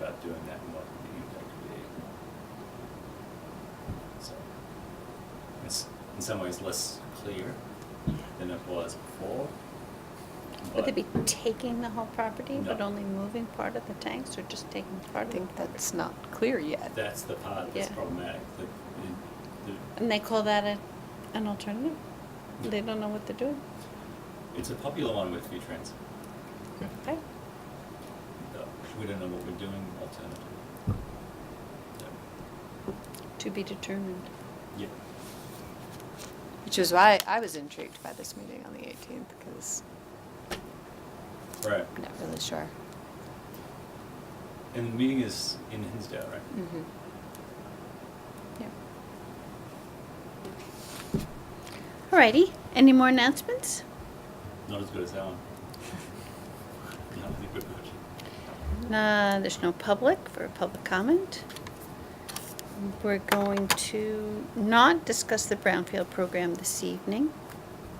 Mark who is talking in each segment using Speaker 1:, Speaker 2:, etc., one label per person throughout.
Speaker 1: not doing that and what the impact would be. So, it's in some ways less clear than it was before.
Speaker 2: Would they be taking the whole property, but
Speaker 1: No.
Speaker 2: only moving part of the tanks, or just taking
Speaker 3: I
Speaker 2: part of
Speaker 3: think
Speaker 2: it?
Speaker 3: that's not clear yet.
Speaker 1: That's the part that's
Speaker 2: Yeah.
Speaker 1: problematic, that, it- that
Speaker 2: And they call that a, an alternative? They don't know what they're doing?
Speaker 1: It's a popular one with V-Trans.
Speaker 2: Okay,
Speaker 1: but We don't know what we're doing alternatively.
Speaker 2: to be determined.
Speaker 1: Yeah.
Speaker 3: Which is why I was intrigued by this meeting on the 18th, because
Speaker 1: Right.
Speaker 3: I'm not really sure.
Speaker 1: And the meeting is in Hinsdale, right?
Speaker 3: Mm-hmm.
Speaker 2: Yeah. Alrighty, any more announcements?
Speaker 1: Not as good as that one. No, I think we're good.
Speaker 2: Uh, there's no public for public comment. We're going to not discuss the Brownfield program this evening.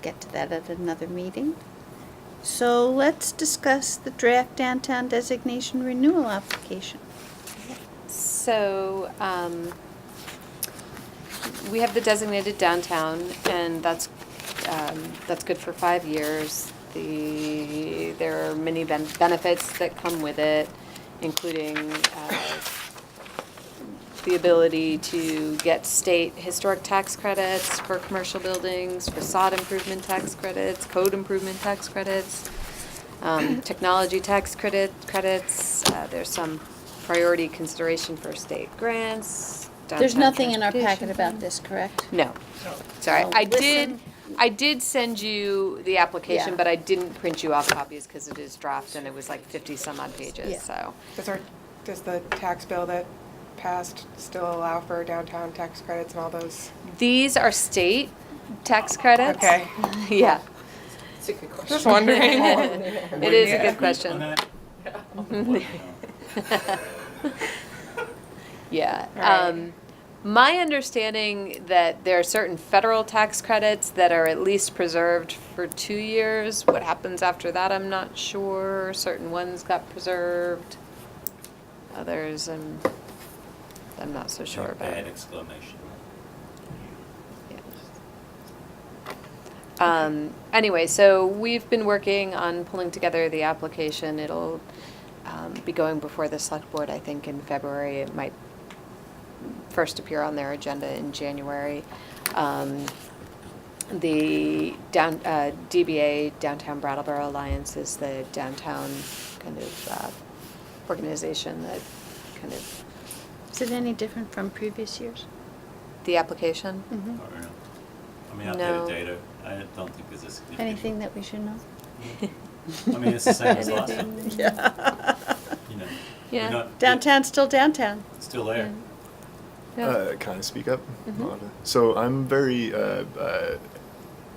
Speaker 2: Get to that at another meeting. So let's discuss the draft downtown designation renewal application.
Speaker 3: So, um, we have the designated downtown, and that's, um, that's good for five years. The, there are many ben- benefits that come with it, including, uh, the ability to get state historic tax credits for commercial buildings, facade improvement tax credits, code improvement tax credits, um, technology tax credit, credits, uh, there's some priority consideration for state grants.
Speaker 2: There's
Speaker 3: downtown
Speaker 2: nothing in our packet
Speaker 3: transportation.
Speaker 2: about this, correct?
Speaker 3: No, sorry,
Speaker 2: I'll
Speaker 3: I did,
Speaker 2: listen.
Speaker 3: I did send you the application,
Speaker 2: Yeah.
Speaker 3: but I didn't print you off copies because it is draft and it was like fifty some odd
Speaker 2: Yeah.
Speaker 3: pages, so.
Speaker 4: Does our, does the tax bill that passed still allow for downtown tax credits and all those?
Speaker 3: These are state tax credits.
Speaker 4: Okay.
Speaker 3: Yeah,
Speaker 5: It's a good question.
Speaker 4: Just wondering.
Speaker 3: it is a good
Speaker 1: On
Speaker 3: question.
Speaker 1: that? What? No.
Speaker 3: Yeah.
Speaker 4: Alright.
Speaker 3: Um, my understanding that there are certain federal tax credits that are at least preserved for two years. What happens after that, I'm not sure. Certain ones got preserved. Others, I'm, I'm not so sure about.
Speaker 1: Bad exclamation.
Speaker 3: Um, anyway, so we've been working on pulling together the application. It'll um, be going before the select board, I think, in February. It might first appear on their agenda in January. Um, the down, uh, DBA, Downtown Brattleboro Alliance, is the downtown kind of uh, organization that kind of,
Speaker 2: Is it any different from previous years?
Speaker 3: the application.
Speaker 2: Mhm.
Speaker 1: Not really. I mean,
Speaker 3: Mm-hmm. No.
Speaker 1: updated data, I don't think there's a significant.
Speaker 2: Anything that we should know?
Speaker 1: I mean, it's the same as last time,
Speaker 2: Anything- Yeah.
Speaker 1: you know. We're
Speaker 3: Yeah.
Speaker 1: not-
Speaker 2: Downtown's still downtown.
Speaker 1: it's Still there.
Speaker 3: Yeah.
Speaker 6: Uh, kind of speak up. Not a- So I'm very uh, uh,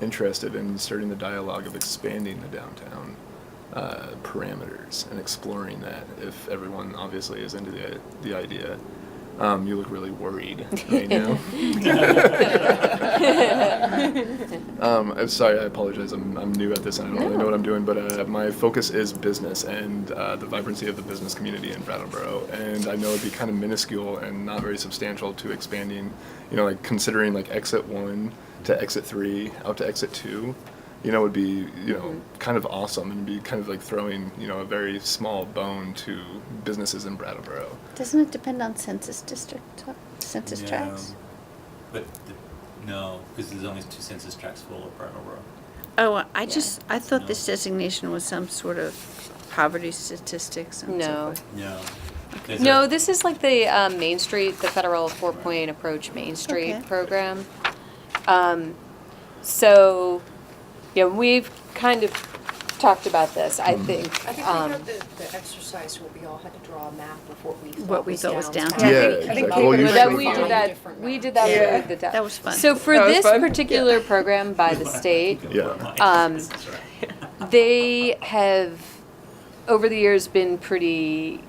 Speaker 6: interested in starting the dialogue of expanding the downtown uh, parameters and exploring that. If everyone obviously is into the the idea, um, you look really worried right now. Um, I'm sorry, I apologize. I'm, I'm new at this and I don't really know what I'm doing, but uh, my focus is business and uh, the vibrancy of the business community in Brattleboro. And I know it'd be kind of minuscule and not very substantial to expanding, you know, like considering like exit one to exit three out to exit two, you know, would be, you know, kind of awesome and be kind of like throwing, you know, a very small bone to businesses in Brattleboro.
Speaker 2: Doesn't it depend on census district, uh, census
Speaker 1: No.
Speaker 2: tracts?
Speaker 1: But, the- no, because there's only two census tracts for all of Brattleboro.
Speaker 2: Oh, I
Speaker 3: Yeah.
Speaker 2: just, I thought this
Speaker 1: No.
Speaker 2: designation was some sort of poverty statistics and so
Speaker 3: No.
Speaker 2: forth.
Speaker 1: No. There's
Speaker 3: No,
Speaker 1: a-
Speaker 3: this is like the um, Main Street, the federal four-point approach Main
Speaker 2: Okay.
Speaker 3: Street program. Um, so, yeah, we've kind of talked about this,
Speaker 6: Mm-hmm.
Speaker 3: I think.
Speaker 5: I think we
Speaker 3: um,
Speaker 5: had the, the exercise where we all had to draw a map of what we
Speaker 2: What
Speaker 5: thought
Speaker 2: we
Speaker 5: was
Speaker 2: thought was
Speaker 5: downtown.
Speaker 2: downtown.
Speaker 6: Yeah,
Speaker 4: I think
Speaker 6: exactly. Oh, Well,
Speaker 4: paper
Speaker 6: you
Speaker 3: No, that
Speaker 6: should
Speaker 3: we
Speaker 6: find-
Speaker 3: did
Speaker 5: find
Speaker 3: that,
Speaker 5: different
Speaker 3: we
Speaker 5: maps.
Speaker 3: did that
Speaker 4: Yeah.
Speaker 3: with the.
Speaker 2: That was fun.
Speaker 3: So for
Speaker 4: That was
Speaker 3: this
Speaker 4: fun?
Speaker 3: particular program by the state,
Speaker 6: Yeah.
Speaker 3: Um,
Speaker 1: That's right.
Speaker 3: they have over the years been pretty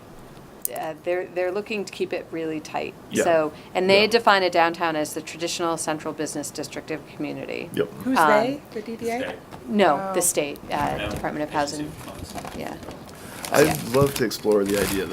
Speaker 3: uh, they're they're looking to keep it really tight
Speaker 6: Yeah.
Speaker 3: so and they
Speaker 6: Yeah.
Speaker 3: define a downtown as the traditional central business district of community
Speaker 6: Yep.
Speaker 4: Who's
Speaker 3: Um,
Speaker 4: they, the
Speaker 1: State.
Speaker 4: DDA?
Speaker 3: no
Speaker 4: Wow.
Speaker 3: the state uh,
Speaker 1: No,
Speaker 3: department of
Speaker 1: agency
Speaker 3: housing
Speaker 1: of commerce.
Speaker 3: yeah
Speaker 6: I'd love to explore the idea